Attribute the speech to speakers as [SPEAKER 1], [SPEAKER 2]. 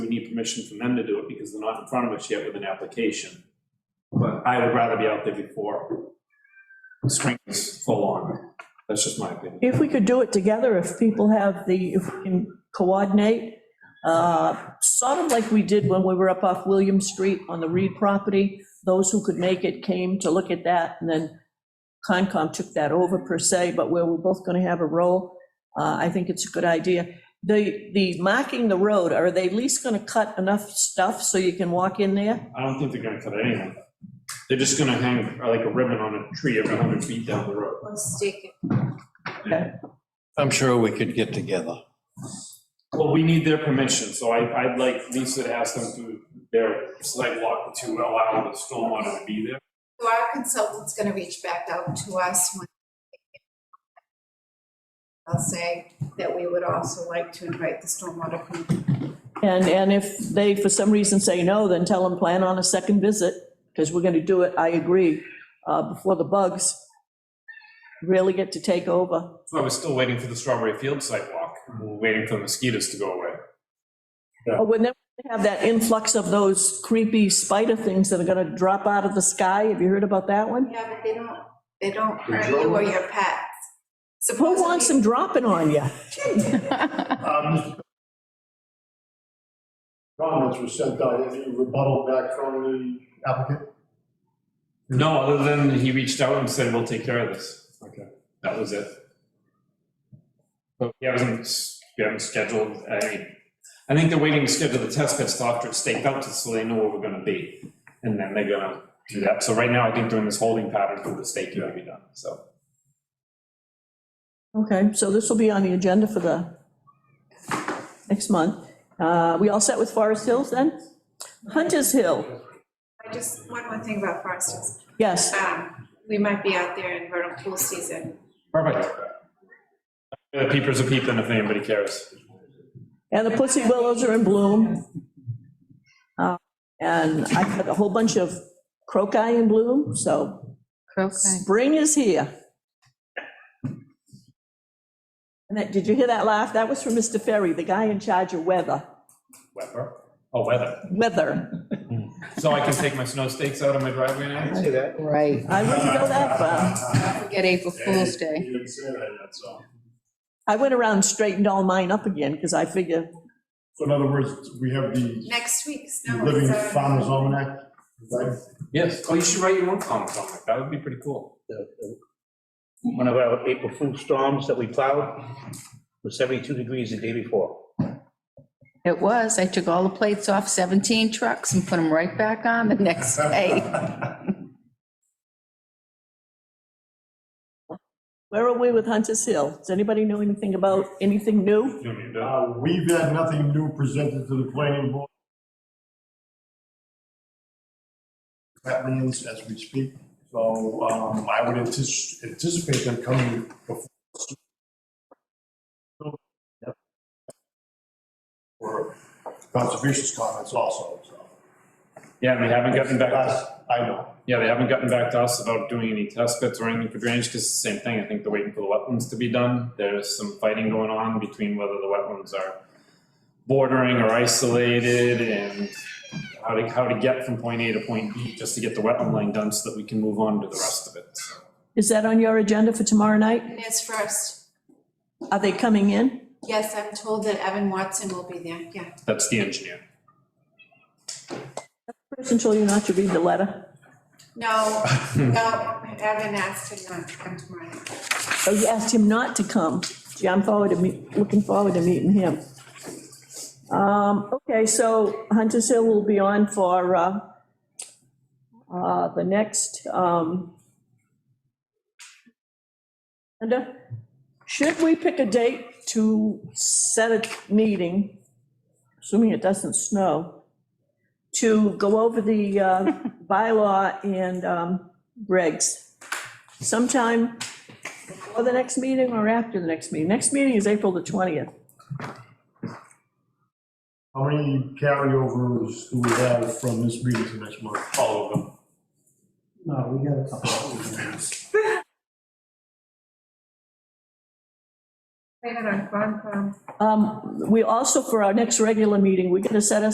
[SPEAKER 1] permission from them to do it because they're not in front of us yet with an application. But I would rather be out there before spring's full on. That's just my opinion.
[SPEAKER 2] If we could do it together, if people have the, if we can coordinate, uh, sort of like we did when we were up off William Street on the Reed property, those who could make it came to look at that, and then Concom took that over per se, but where we're both going to have a role, uh, I think it's a good idea. The, the marking the road, are they at least going to cut enough stuff so you can walk in there?
[SPEAKER 1] I don't think they're gonna cut anything. They're just gonna hang uh, like a ribbon on a tree every hundred feet down the road.
[SPEAKER 3] One stick.
[SPEAKER 4] I'm sure we could get together.
[SPEAKER 1] Well, we need their permission, so I, I'd like Lisa to ask them to, their sidewalk to allow the stormwater to be there.
[SPEAKER 3] So our consultant's gonna reach back out to us when. I'll say that we would also like to invite the stormwater committee.
[SPEAKER 2] And, and if they, for some reason, say no, then tell them, plan on a second visit, because we're going to do it, I agree, uh, before the bugs really get to take over.
[SPEAKER 1] So I was still waiting for the Strawberry Field sidewalk, we were waiting for the mosquitoes to go away.
[SPEAKER 2] But When they have that influx of those creepy spider things that are going to drop out of the sky, have you heard about that one?
[SPEAKER 3] Yeah, but they don't, they don't hurt you or your pets.
[SPEAKER 2] Who wants them dropping on you?
[SPEAKER 5] Um, Comments were sent out, any rebuttal back from the applicant?
[SPEAKER 1] No, other than he reached out and said, we'll take care of this. Okay. That was it. But we haven't, s- we haven't scheduled, I mean, I think they're waiting to schedule the test pits after it's staked out, just so they know where we're gonna be. And then they're gonna do that. So right now, I think they're in this holding pattern for the stake to be done, so.
[SPEAKER 2] Okay, so this will be on the agenda for the next month. Uh, We all set with Forest Hills then? Hunter's Hill,
[SPEAKER 3] I just, one more thing about Forest Hills.
[SPEAKER 2] yes.
[SPEAKER 3] Um, we might be out there in vernal pool season.
[SPEAKER 1] Perfect. The peepers are peeping if anybody cares.
[SPEAKER 2] And the pussy willows are in bloom. Uh, And I've got a whole bunch of crocus in bloom, so spring is here. And that, did you hear that laugh? That was from Mr. Ferry, the guy in charge of weather,
[SPEAKER 1] Weather, oh, weather.
[SPEAKER 2] weather.
[SPEAKER 1] So I can take my snow stakes out of my driveway now?
[SPEAKER 6] Right.
[SPEAKER 2] I wouldn't go that far.
[SPEAKER 6] Forget April Fool's Day.
[SPEAKER 5] You didn't say that, that's all.
[SPEAKER 2] I went around and straightened all mine up again, because I figure,
[SPEAKER 5] So in other words, we have the
[SPEAKER 3] Next week, snow.
[SPEAKER 5] Living
[SPEAKER 3] is out.
[SPEAKER 5] Farmers Almanac, right?
[SPEAKER 1] Yes, oh, you should write your own comic comic, that would be pretty cool.
[SPEAKER 7] the- the- one of our April Fool storms that we plowed was 72 degrees the day before.
[SPEAKER 6] It was. I took all the plates off 17 trucks and put them right back on the next day.
[SPEAKER 2] where are we with Hunter's Hill? Does anybody know anything about, anything new?
[SPEAKER 1] You want me to do it?
[SPEAKER 5] Uh, We've had nothing new presented to the planning board. That means as we speak, so um, I would antici- anticipate them coming before. For conservation's comments also, so.
[SPEAKER 1] Yeah, and they haven't gotten back, to-
[SPEAKER 5] Last- I know,
[SPEAKER 1] yeah, they haven't gotten back to us about doing any test pits or anything for drainage, because it's the same thing, I think they're waiting for the wetlands to be done. There's some fighting going on between whether the wetlands are bordering or isolated, and how to, how to get from point A to point B, just to get the wetland line done, so that we can move on to the rest of it, so.
[SPEAKER 2] Is that on your agenda for tomorrow night?
[SPEAKER 3] And It's first.
[SPEAKER 2] Are they coming in?
[SPEAKER 3] Yes, I'm told that Evan Watson will be there, yeah.
[SPEAKER 1] That's the engineer.
[SPEAKER 2] First, until you not to read the letter.
[SPEAKER 3] No, no, Evan asked him not to come tomorrow.
[SPEAKER 2] Oh, you asked him not to come. Gee, I'm forward to meet, looking forward to meeting him. Um, okay, so Hunter's Hill will be on for, uh, uh, the next, um, Linda, should we pick a date to set a meeting, assuming it doesn't snow, to go over the, uh, bylaw and, um, regs sometime before the next meeting or after the next meeting? Next meeting is April the 20th.
[SPEAKER 5] how many carryovers do we have from this meeting to next month? All of them.
[SPEAKER 8] No, we got a couple of things.
[SPEAKER 3] Wait, hold on, wrong, wrong.
[SPEAKER 2] Um, We also, for our next regular meeting, we're going to set aside